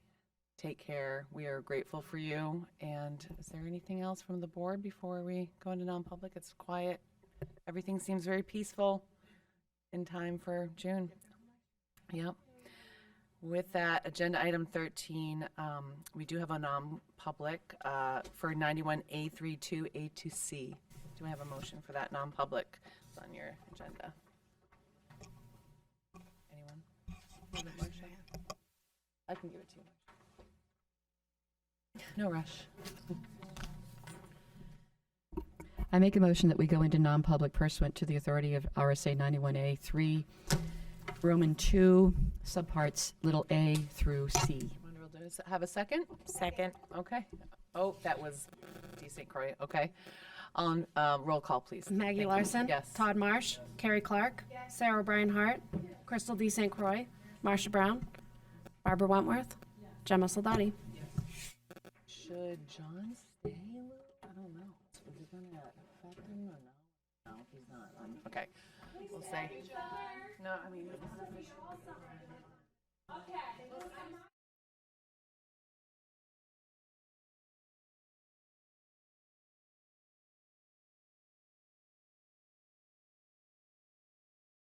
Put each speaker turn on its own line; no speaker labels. Take care. We are grateful for you. And is there anything else from the board before we go into non-public? It's quiet. Everything seems very peaceful in time for June. Yep. With that, agenda item 13, um, we do have a non-public uh, for 91A32A2C. Do I have a motion for that non-public It's on your agenda? Anyone? Need a motion? I can give it to you. No rush.
I make a motion that we go into non-public pursuant to the authority of RSA 91A 3, Roman 2, subparts little a through c.
Wonder we'll do is have a second?
Second.
Okay. Oh, that was D. St. Croix. Okay. On, um, roll call, please. Thank
Maggie
you.
Larson.
Yes.
Todd Marsh. Carrie Clark. Sarah O'Brien Hart. Crystal D. St. Croix. Marcia Brown. Barbara Wentworth. Gemma Soldati.
Should John stay? Lou? I don't know. Is it gonna affect him or no? No, he's not. Um, Okay. We'll say. No, I mean.